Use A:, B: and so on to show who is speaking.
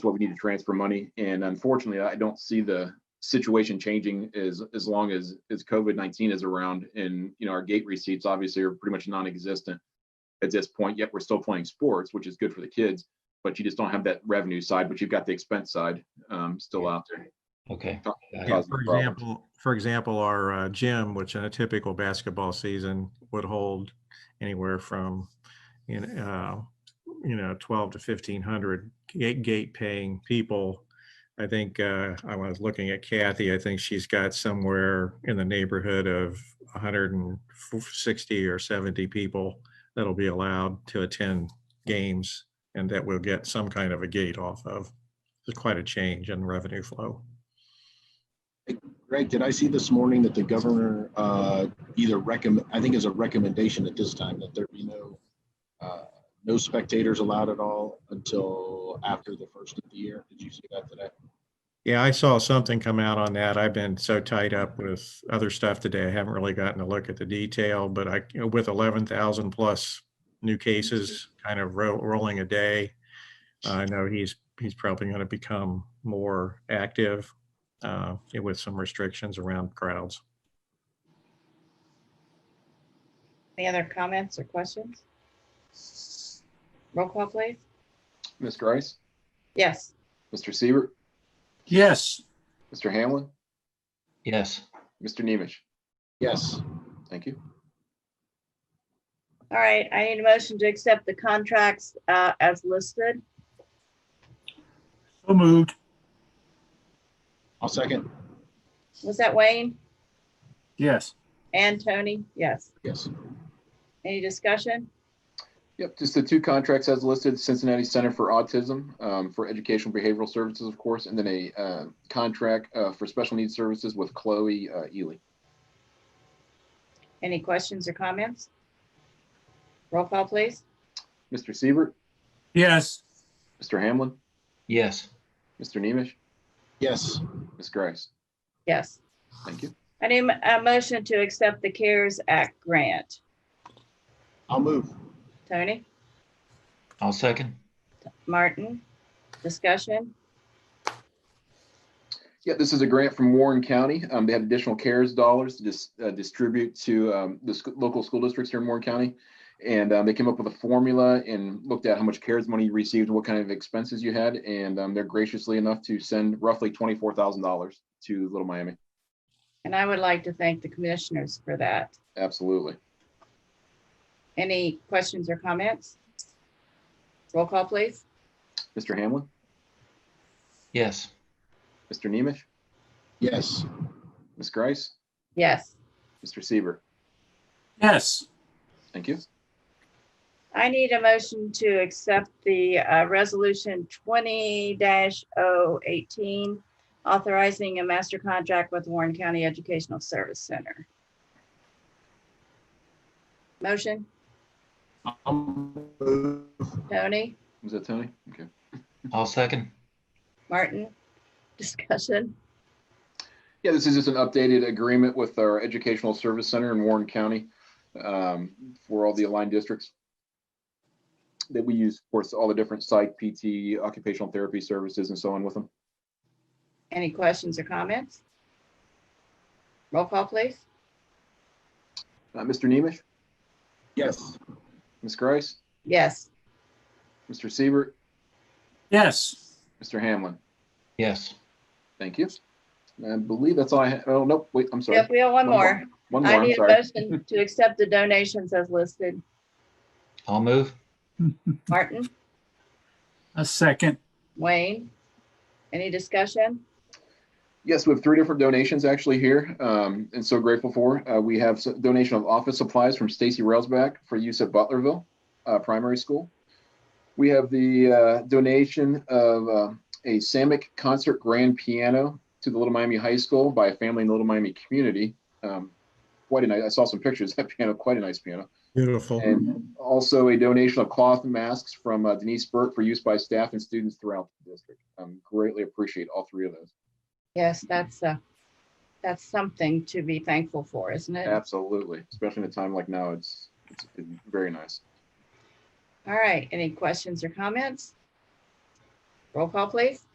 A: what we need to transfer money. And unfortunately, I don't see the situation changing as, as long as, as COVID-19 is around and, you know, our gate receipts obviously are pretty much non-existent at this point, yet we're still playing sports, which is good for the kids, but you just don't have that revenue side, but you've got the expense side, um, still out there.
B: Okay.
A: Co-
B: Got it.
C: Yeah,
A: causing
C: for
A: problems.
C: example, for example, our uh, gym, which in a typical basketball season would hold anywhere from, you know, uh, you know, twelve to fifteen hundred gate gate paying people. I think uh, I was looking at Kathy. I think she's got somewhere in the neighborhood of one hundred and sixty or seventy people that'll be allowed to attend games, and that will get some kind of a gate off of. It's quite a change in revenue flow.
D: Greg, did I see this morning that the governor uh, either recommend, I think is a recommendation at this time that there be no, uh, no spectators allowed at all until after the first of the year? Did you see that today?
C: Yeah, I saw something come out on that. I've been so tied up with other stuff today. I haven't really gotten a look at the detail, but I, you know, with eleven thousand plus new cases kind of ro- rolling a day, I know he's, he's probably going to become more active uh, with some restrictions around crowds.
E: Any other comments or questions? Roll call, please.
A: Ms. Grice,
E: Yes,
A: Mr. Siebert,
F: Yes,
A: Mr. Hamlin,
B: Yes.
A: Mr. Nemish.
D: Yes,
A: Thank you.
E: all right. I need a motion to accept the contracts uh, as listed.
F: so moved.
D: I'll second.
E: Was that Wayne
F: Yes,
E: and Tony? Yes.
D: Yes.
E: Any discussion?
A: Yep, just the two contracts as listed, Cincinnati Center for Autism, um, for Educational Behavioral Services, of course, and then a, uh, contract, uh, for special needs services with Chloe, uh, Ely.
E: Any questions or comments? Roll call, please.
A: Mr. Siebert,
F: yes,
A: Mr. Hamlin,
B: Yes.
A: Mr. Nemish,
D: Yes,
A: Ms. Grice.
E: Yes.
A: Thank you.
E: I need a motion to accept the CARES Act grant.
D: I'll move.
E: Tony,
B: I'll second.
E: Martin, discussion?
A: Yeah, this is a grant from Warren County. Um, they have additional CARES dollars to dis- uh, distribute to, um, the sc- local school districts here in Warren County. And, um, they came up with a formula and looked at how much CARES money you received, what kind of expenses you had, and, um, they're graciously enough to send roughly twenty-four thousand dollars to Little Miami.
E: And I would like to thank the commissioners for that.
A: Absolutely.
E: Any questions or comments? Roll call, please.
A: Mr. Hamlin,
B: Yes.
A: Mr. Nemish,
D: Yes,
A: Ms. Grice,
E: Yes.
A: Mr. Seaver.
F: yes,
A: Thank you.
E: I need a motion to accept the uh, resolution twenty 18 authorizing a master contract with Warren County Educational Service Center. Motion,
D: I'll move.
E: Tony,
A: Was that Tony? Okay.
B: I'll second.
E: Martin, discussion.
A: Yeah, this is just an updated agreement with our Educational Service Center in Warren County um, for all the aligned districts that we use, of course, all the different psych, PT, occupational therapy services and so on with them.
E: Any questions or comments? Roll call, please.
A: Uh, Mr. Nemish,
D: Yes,
A: Ms. Grice,
E: Yes.
A: Mr. Siebert,
F: yes,
A: Mr. Hamlin.
B: Yes.
A: Thank you. And I believe that's all I, ha- oh, nope, wait, I'm sorry.
E: Yep, we have one
A: One more.
E: more.
A: One more,
E: I
A: I'm
E: need a
A: sorry.
E: motion to accept the donations as listed.
B: I'll move.
E: Martin,
F: a second.
E: Wayne, any discussion?
A: Yes, we have three different donations actually here, um, and so grateful for. Uh, we have s- donation of office supplies from Stacy Railsback for use at Butlerville uh, Primary School. We have the uh, donation of uh, a Samick concert grand piano to the Little Miami High School by a family in the Little Miami community. Um, quite a nice. I saw some pictures. That piano, quite a nice piano.
C: Beautiful.
A: And also a donation of cloth masks from uh, Denise Burke for use by staff and students throughout the district. Um, greatly appreciate all three of those.
E: Yes, that's, uh, that's something to be thankful for, isn't it?
A: Absolutely, especially in a time like now, it's, it's it's very nice.
E: All right, any questions or comments? Roll call, please.